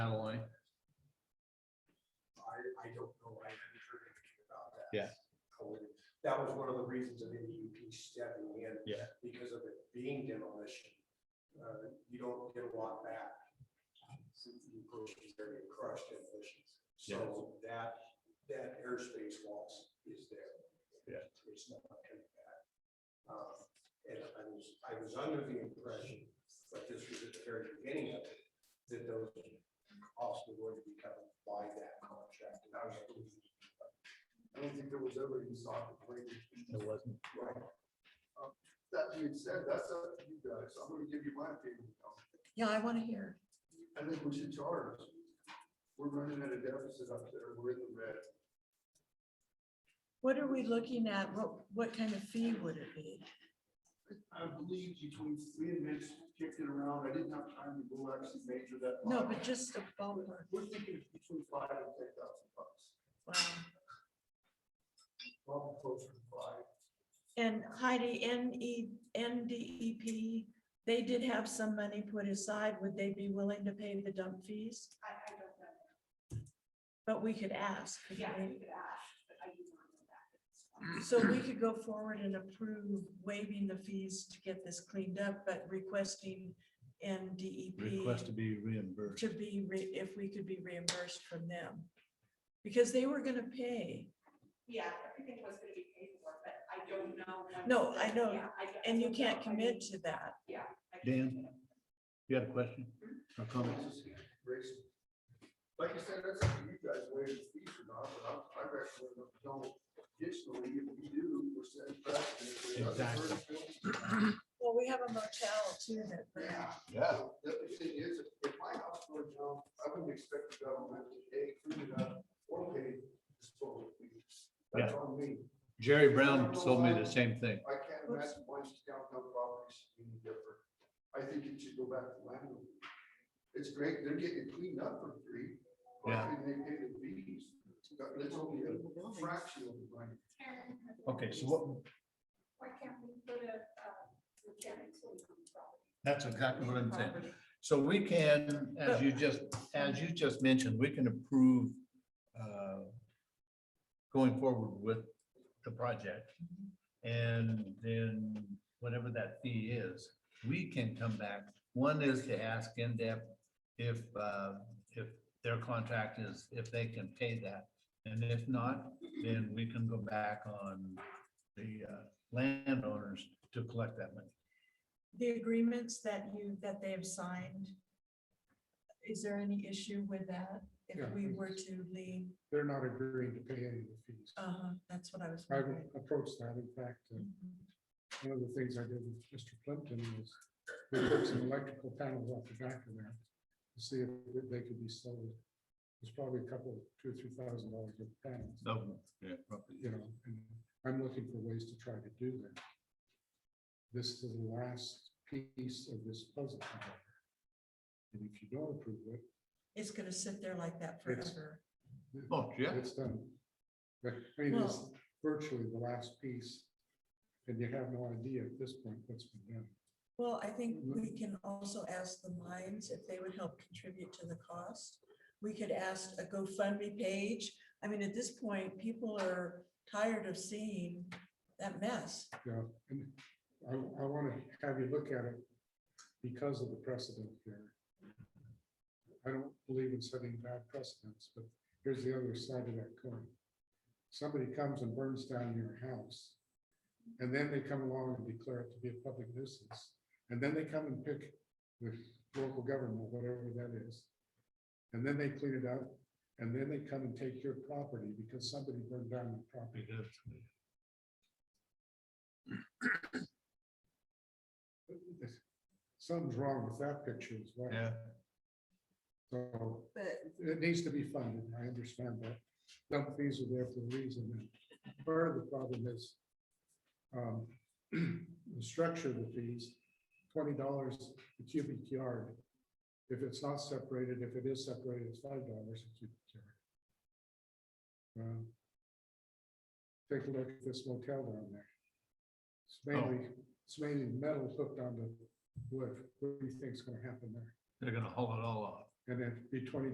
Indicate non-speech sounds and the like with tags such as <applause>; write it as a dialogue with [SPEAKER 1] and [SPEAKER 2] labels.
[SPEAKER 1] don't know why we heard anything about that.
[SPEAKER 2] Yeah.
[SPEAKER 1] That was one of the reasons of NDUP stepping in.
[SPEAKER 2] Yeah.
[SPEAKER 1] Because of it being demolition, uh, you don't get a lot back. Since the approach is very crushed demolitions, so that, that airspace loss is there.
[SPEAKER 2] Yeah.
[SPEAKER 1] It's not coming back. Um, and I was, I was under the impression, but this was at the very beginning of it, that those costs were going to be covered by that contract, and I was. like, I don't think there was ever any thought of bringing.
[SPEAKER 2] It wasn't.
[SPEAKER 1] Right. Um, That being said, that's up to you guys, I'm gonna give you my opinion.
[SPEAKER 3] Yeah, I want to hear.
[SPEAKER 1] I think we should charge. We're running at a deficit up there, we're in the red.
[SPEAKER 3] What are we looking at? What, what kind of fee would it be?
[SPEAKER 1] I believe between three and Mitch kicked it around, I didn't have time to go actually measure that.
[SPEAKER 3] No, but just a ballpark.
[SPEAKER 1] We're thinking between five and ten thousand bucks,
[SPEAKER 3] Wow.
[SPEAKER 1] probably closer to five.
[SPEAKER 3] And Heidi, E, NE, NDEP, E they did have some money put aside. Would they be willing to pay the dump fees?
[SPEAKER 4] I, I don't know.
[SPEAKER 3] But we could ask. couldn't
[SPEAKER 4] Yeah,
[SPEAKER 3] we?
[SPEAKER 4] you could ask, but I do not know that.
[SPEAKER 3] So we could go forward and approve waiving the fees to get this cleaned up, but requesting
[SPEAKER 2] Request to
[SPEAKER 3] NDEP
[SPEAKER 2] be reimbursed.
[SPEAKER 3] to be, re- if we could be reimbursed from them. Because they were gonna pay.
[SPEAKER 4] Yeah, everything was gonna be paid for, but I don't know. when-
[SPEAKER 3] No, I know,
[SPEAKER 4] Yeah, I don't-
[SPEAKER 3] And you
[SPEAKER 4] I don't
[SPEAKER 3] can't
[SPEAKER 4] know. I mean,
[SPEAKER 3] commit to that.
[SPEAKER 4] Yeah. I can't
[SPEAKER 2] Dan?
[SPEAKER 4] commit.
[SPEAKER 2] You have a question or comment?
[SPEAKER 1] Like you said, that's up to you guys, whether it's fees or not, but I'm- I recommend we don't additionally, if we do, we're setting precedent. if we don't-
[SPEAKER 2] Exactly.
[SPEAKER 3] Well, we have a motel too that,
[SPEAKER 1] Yeah.
[SPEAKER 2] Yeah.
[SPEAKER 1] The other thing is, if- if my house burned down, I wouldn't expect the government to pay, clean it up, or pay disposal fees. That's on me.
[SPEAKER 2] Jerry Brown told me the same thing.
[SPEAKER 1] I can't imagine why it's downtown properties should be any different. I think it should go back to landlord. It's great, they're getting it cleaned up for free. but
[SPEAKER 2] Yeah.
[SPEAKER 1] then They pay the fees, But it's only a fraction of the money.
[SPEAKER 2] Okay, so what,
[SPEAKER 4] Why can't we put a, uh, mechanic to the property?
[SPEAKER 2] that's exactly what I'm saying. So we can, as you just, as you just mentioned, we can approve uh, going forward with the project. And then whatever that fee is, we can come back. One is to ask in-depth if, uh, if their contract is, if they can pay that. And if not, then we can go back on the uh, landowners to collect that money.
[SPEAKER 3] the agreements that you, that they have signed. Is there any issue with that if
[SPEAKER 5] Yeah.
[SPEAKER 3] we were to leave?
[SPEAKER 5] they're not agreeing to pay any of the fees.
[SPEAKER 3] Uh, that's what I was.
[SPEAKER 5] I've
[SPEAKER 3] wondering.
[SPEAKER 5] approached that, in fact, uh,
[SPEAKER 3] Mhm.
[SPEAKER 5] one of the things I did with Mr. Plimpton was we took some electrical panels off the back of there to see if they could be sold. It's probably a couple, two or three thousand dollars of panels,
[SPEAKER 2] So, yeah, probably.
[SPEAKER 5] you know, and I'm looking for ways to try to do that. This is the last piece of this puzzle. however. And if you don't approve it,
[SPEAKER 3] It's gonna sit there like that
[SPEAKER 5] It's-
[SPEAKER 3] forever.
[SPEAKER 2] Oh, yeah.
[SPEAKER 5] It's done. But I mean, it's virtually the last piece. And you have no idea at this point what's been done.
[SPEAKER 3] Well, I think
[SPEAKER 5] Mm-hmm.
[SPEAKER 3] we can also ask the mines if they would help contribute to the cost. We could ask a GoFundMe page. I mean, at this point, people are tired of seeing that mess.
[SPEAKER 5] Yeah, and I, I want to have you look at it because of the precedent here. I don't believe in setting bad precedents, but here's the other side of that coin. Somebody comes and burns down your house, and then they come along and declare it to be a public nuisance. And then they come and pick the local government, whatever that is. And then they clean it up, and then they come and take your property because somebody burned down your property. Something's wrong with that picture as well.
[SPEAKER 2] Yeah,
[SPEAKER 5] So
[SPEAKER 3] But
[SPEAKER 5] it needs to be funded, I understand that. Dump fees are there for a reason, and part of the problem is um, <clears throat> the structure of the fees, twenty dollars a cubic yard. If it's not separated, if it is separated, it's five dollars a cubic yard. Um, Take a look at this motel down there. It's mainly, it's mainly metal hooked onto wood, what do you think's gonna happen there?
[SPEAKER 2] they're gonna haul it all off.
[SPEAKER 5] And it'd be twenty